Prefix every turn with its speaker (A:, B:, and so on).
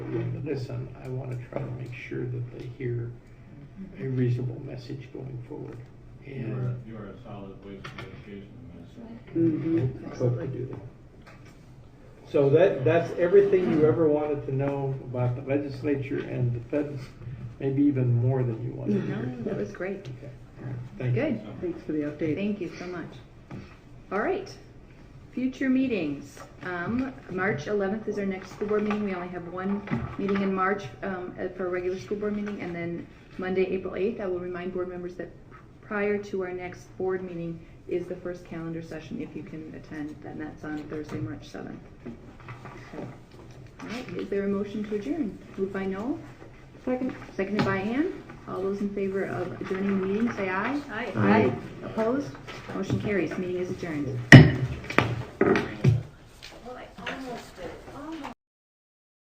A: listen, I wanna try to make sure that they hear a reasonable message going forward.
B: You are,
A: And,
B: you are a solid waste of education minister.
A: Mhm,
C: Mm-hmm.
A: I hope they do that. So that, that's everything you ever wanted to know about the legislature and the feds, maybe even more than you wanted to hear.
C: No, that was great.
A: Okay, all right, Thank you.
C: Good.
D: Thanks for the update.
C: Thank you so much. All right. Future meetings. Um, March 11th is our next school board meeting. We only have one meeting in March um, uh, for a regular school board meeting, and then Monday, April 8th. I will remind board members that prior to our next board meeting is the first calendar session, if you can attend, then that's on Thursday, March 7th. So, All right, is there a motion to adjourn? Moved by Noel? Second. Seconded by Ann. All those in favor of adjourning the meeting, say aye.
E: Aye.
C: Aye. Opposed? Motion carries. Meeting is adjourned.